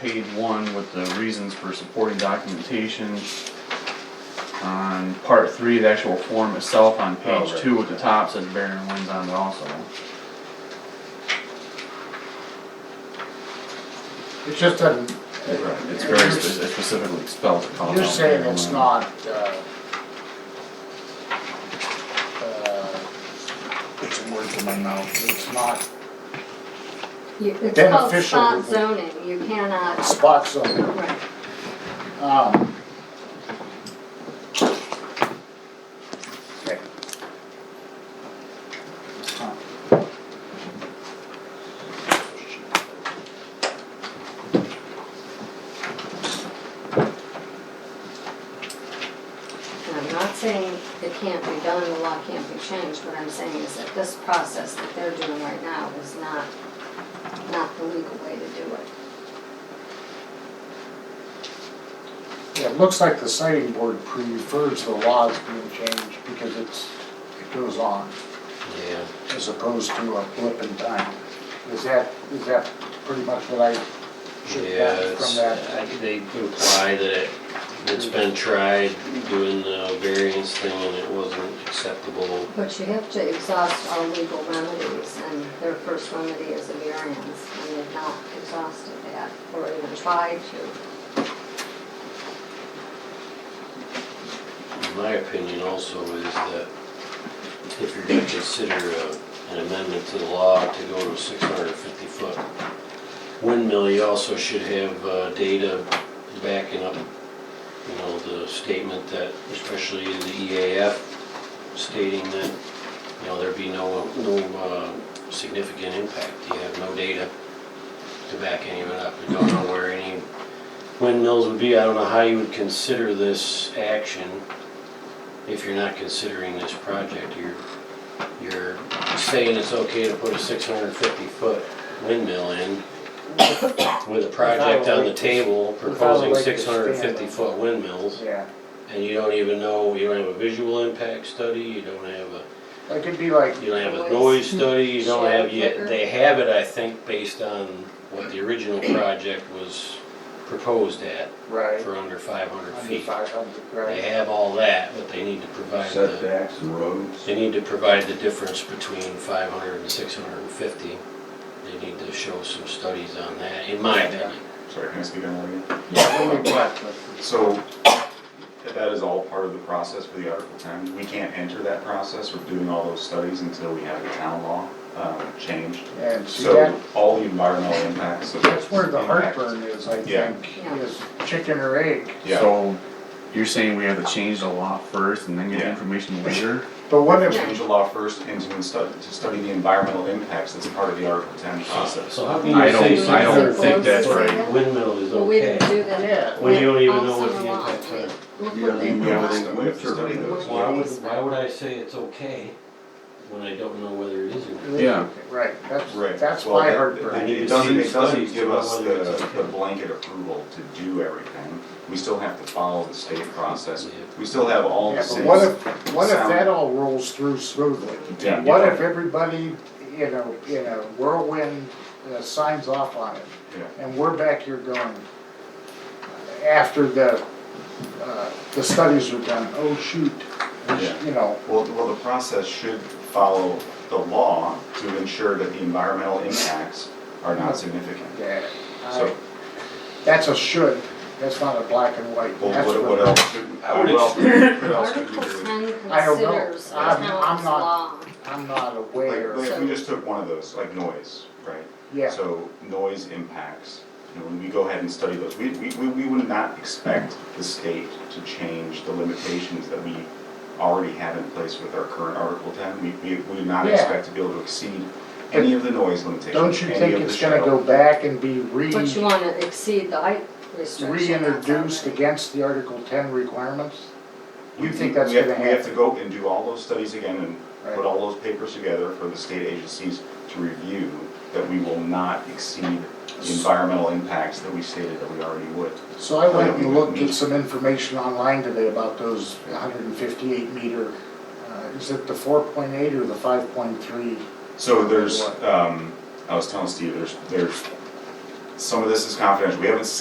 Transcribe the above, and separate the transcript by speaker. Speaker 1: page one with the reasons for supporting documentation. On part three, the actual form itself on page
Speaker 2: Oh, right.
Speaker 1: two at the top says Barron and Winds on it also.
Speaker 3: It just doesn't,
Speaker 1: It's very spe- it's specifically spelled to call out.
Speaker 3: you're saying
Speaker 1: Barron
Speaker 3: it's
Speaker 1: Winds.
Speaker 3: not, uh, uh,
Speaker 2: It's a word in my mouth.
Speaker 3: it's not
Speaker 4: You- It's called
Speaker 3: Beneficial
Speaker 4: spot
Speaker 3: to the-
Speaker 4: zoning, you cannot,
Speaker 3: spot zoning.
Speaker 4: right,
Speaker 3: Um, okay. Huh.
Speaker 4: and I'm not saying it can't be done, the law can't be changed, what I'm saying is that this process that they're doing right now is not, not the legal way to do it.
Speaker 3: Yeah, it looks like the sighting board prefers the laws being changed because it's, it goes on
Speaker 5: Yeah,
Speaker 3: as opposed to a blip in time. Is that, is that pretty much what I should
Speaker 5: yeah,
Speaker 3: get
Speaker 5: it's,
Speaker 3: from that?
Speaker 5: I- they imply that it, it's been tried doing the variance thing and it wasn't acceptable.
Speaker 4: But you have to exhaust all legal remedies, and their first remedy is a variance, and they've not exhausted that, or even tried to.
Speaker 5: My opinion also is that if you're gonna consider a- an amendment to the law to go to six hundred and fifty foot windmill, you also should have uh, data backing up, you know, the statement that, especially in the EAF stating that, you know, there'd be no, no uh, significant impact. You have no data to back any of it up. You don't know where any windmills would be. I don't know how you would consider this action if you're not considering this project. You're, you're saying it's okay to put a six hundred and fifty foot windmill in with a project on the table proposing
Speaker 3: Without a
Speaker 5: six hundred and fifty
Speaker 3: stand.
Speaker 5: foot windmills.
Speaker 3: Yeah,
Speaker 5: And you don't even know, you don't have a visual impact study, you don't have a
Speaker 3: it could be like,
Speaker 5: you don't have a
Speaker 4: Noise.
Speaker 5: noise study, you don't have,
Speaker 4: Shadow
Speaker 5: yet. they have it, I think, based on what the original project was proposed at,
Speaker 3: right,
Speaker 5: for under five hundred
Speaker 3: under
Speaker 5: feet.
Speaker 3: five hundred,
Speaker 5: They
Speaker 3: right?
Speaker 5: have all that, but they need to provide the,
Speaker 2: Setbacks, roads.
Speaker 5: they need to provide the difference between five hundred and six hundred and fifty. They need to show some studies on that, in my opinion.
Speaker 6: Sorry, can I speak on that again?
Speaker 3: Yeah, when we collect it.
Speaker 6: So, that is all part of the process for the Article ten. We can't enter that process of doing all those studies until we have the town law, um, changed.
Speaker 3: And see, that,
Speaker 6: So, all the environmental impacts of.
Speaker 3: that's where the
Speaker 6: impact-
Speaker 3: heartburn is, I
Speaker 6: Yeah.
Speaker 3: think,
Speaker 4: Yeah.
Speaker 3: is chicken or egg.
Speaker 6: Yeah,
Speaker 1: So, you're saying we have to change the law first and then get the
Speaker 6: Yeah.
Speaker 1: information later?
Speaker 3: But what if,
Speaker 6: change the law first and to study, to study the environmental impacts that's part of the Article ten process.
Speaker 5: So how can
Speaker 1: I
Speaker 5: you say
Speaker 1: don't, I don't think that's right.
Speaker 5: windmill is
Speaker 4: Well, we
Speaker 5: okay?
Speaker 4: didn't do
Speaker 3: Yeah.
Speaker 4: that.
Speaker 5: Well, you don't even
Speaker 4: all
Speaker 5: know what
Speaker 4: summer
Speaker 5: the
Speaker 4: long.
Speaker 5: impacts are.
Speaker 4: Look
Speaker 2: You
Speaker 4: what
Speaker 2: gotta
Speaker 4: they
Speaker 2: leave
Speaker 4: do.
Speaker 6: We have
Speaker 2: Yeah.
Speaker 6: to, we have to study those.
Speaker 5: Why would, why would I say it's okay when I don't know whether it is or not?
Speaker 1: Yeah.
Speaker 3: right, that's,
Speaker 6: Right.
Speaker 3: that's
Speaker 6: Well,
Speaker 3: my
Speaker 6: that-
Speaker 3: heartburn.
Speaker 6: It
Speaker 5: You
Speaker 6: it
Speaker 5: need
Speaker 6: doesn't,
Speaker 5: to
Speaker 6: it
Speaker 5: see
Speaker 6: doesn't
Speaker 5: studies
Speaker 6: give
Speaker 5: to
Speaker 6: us
Speaker 5: know whether it's
Speaker 6: the, the
Speaker 5: okay.
Speaker 6: blanket approval to do everything. We still have to follow the state process.
Speaker 5: Yeah.
Speaker 6: We still have all
Speaker 3: Yeah,
Speaker 6: the
Speaker 3: but
Speaker 6: same.
Speaker 3: what if, what if
Speaker 6: sound.
Speaker 3: that all rolls through smoothly?
Speaker 6: Yeah.
Speaker 3: What if everybody, you know, in a whirlwind, uh, signs off on it?
Speaker 6: Yeah.
Speaker 3: And we're back here going, after the, uh, the studies are done, oh shoot, we sh-
Speaker 6: Yeah.
Speaker 3: you know,
Speaker 6: Well, well, the process should follow the law to ensure that the environmental impacts are not significant.
Speaker 3: yeah. I-
Speaker 6: So-
Speaker 3: That's a should, that's not a black and white,
Speaker 6: Well,
Speaker 3: that's
Speaker 6: what, what
Speaker 3: what,
Speaker 6: else should,
Speaker 5: I would
Speaker 6: what else, what else could we
Speaker 4: Article
Speaker 6: do?
Speaker 4: ten
Speaker 3: I don't know.
Speaker 4: considers the
Speaker 3: I'm- I'm
Speaker 4: town's
Speaker 3: not-
Speaker 4: law.
Speaker 3: I'm not aware,
Speaker 6: Like, like if
Speaker 4: So-
Speaker 6: we just took one of those, like noise, right?
Speaker 3: yeah,
Speaker 6: So noise impacts, you know, when we go ahead and study those, we, we, we we would not expect the state to change the limitations that we already have in place with our current Article ten. We, we, we would not
Speaker 3: Yeah.
Speaker 6: expect to be able to exceed any of the noise limitations,
Speaker 3: don't you
Speaker 6: any
Speaker 3: think
Speaker 6: of the
Speaker 3: it's gonna go
Speaker 6: shadow-
Speaker 3: back and be re-
Speaker 4: But you wanna exceed the height restriction. that's
Speaker 3: reintroduced
Speaker 4: already-
Speaker 3: against the Article ten requirements? You
Speaker 6: We-
Speaker 3: think
Speaker 6: we-
Speaker 3: that's
Speaker 6: we have-
Speaker 3: gonna
Speaker 6: We have to
Speaker 3: happen?
Speaker 6: go and do all those studies again and
Speaker 3: Right.
Speaker 6: put all those papers together for the state agencies to review that we will not exceed the environmental impacts that we stated that we already would.
Speaker 3: So I went
Speaker 6: Yeah, we
Speaker 3: and looked
Speaker 6: need-
Speaker 3: at some information online today about those hundred and fifty-eight meter, uh, is it the four point eight or the five point three?
Speaker 6: So there's, um, I was telling Steve, there's, there's some of this is confidential, we haven't